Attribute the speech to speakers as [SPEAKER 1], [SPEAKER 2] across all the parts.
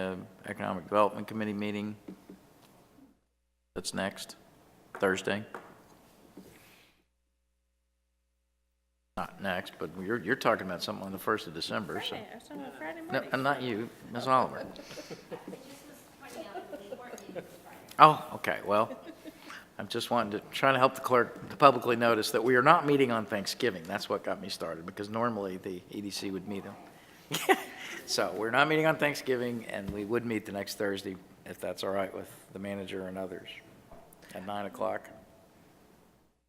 [SPEAKER 1] the uh, Economic Development Committee meeting that's next, Thursday. Not next, but you're, you're talking about something on the 1st of December, so.
[SPEAKER 2] Friday, I was talking about Friday
[SPEAKER 1] No,
[SPEAKER 2] morning.
[SPEAKER 1] and not you, Ms. Oliver. Oh, okay, well, I'm just wanting to, trying to help the clerk to publicly notice that we are not meeting on Thanksgiving. That's what got me started, because normally the EDC would meet on. So we're not meeting on Thanksgiving, and we would meet the next Thursday, if that's all right with the manager and others, at 9 o'clock.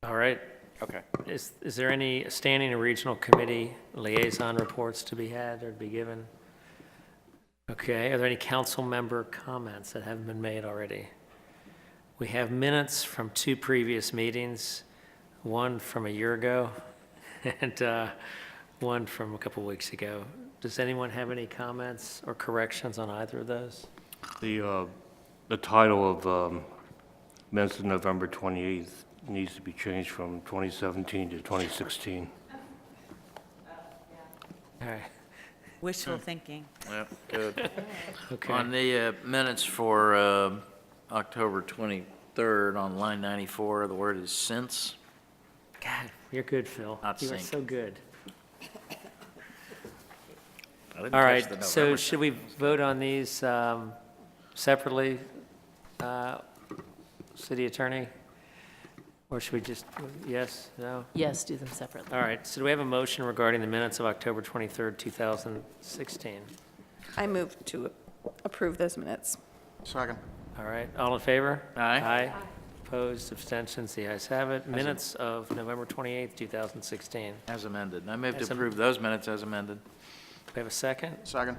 [SPEAKER 3] All right.
[SPEAKER 1] Okay.
[SPEAKER 3] Is, is there any standing or regional committee liaison reports to be had or to be given? Okay, are there any council member comments that haven't been made already? We have minutes from two previous meetings, one from a year ago and uh, one from a couple weeks ago. Does anyone have any comments or corrections on either of those?
[SPEAKER 4] The, uh, the title of um, minutes of November 28th needs to be changed from 2017 to 2016.
[SPEAKER 3] All right,
[SPEAKER 5] Wishful
[SPEAKER 1] Hmm.
[SPEAKER 5] thinking.
[SPEAKER 1] Yeah, good. On
[SPEAKER 3] okay.
[SPEAKER 1] the uh, minutes for uh, October 23rd, on line 94, the word is since.
[SPEAKER 3] God, you're good, Phil.
[SPEAKER 1] Not
[SPEAKER 3] You are
[SPEAKER 1] sync.
[SPEAKER 3] so good.
[SPEAKER 1] I didn't
[SPEAKER 3] All
[SPEAKER 1] catch
[SPEAKER 3] right,
[SPEAKER 1] the
[SPEAKER 3] so
[SPEAKER 1] November.
[SPEAKER 3] should we vote on these um, separately, uh, city attorney? Or should we just, yes, no?
[SPEAKER 6] Yes, do them separately.
[SPEAKER 3] All right, so do we have a motion regarding the minutes of October 23rd, 2016?
[SPEAKER 2] I move to approve those minutes.
[SPEAKER 3] All right, all in favor?
[SPEAKER 1] Aye.
[SPEAKER 3] Aye. Opposed, abstentions, the ayes have it. Minutes of November 28th, 2016.
[SPEAKER 1] As amended. I move to
[SPEAKER 3] As am-
[SPEAKER 1] approve those minutes as amended.
[SPEAKER 3] We have a second?
[SPEAKER 7] Second.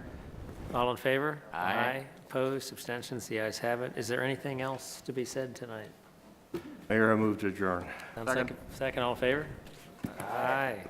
[SPEAKER 3] All in favor?
[SPEAKER 1] Aye.
[SPEAKER 3] Opposed, abstentions, the ayes have it. Is there anything else to be said tonight?
[SPEAKER 4] Mayor, I move to adjourn.
[SPEAKER 3] Um,
[SPEAKER 7] Second.
[SPEAKER 3] Second, second, all in favor? Aye.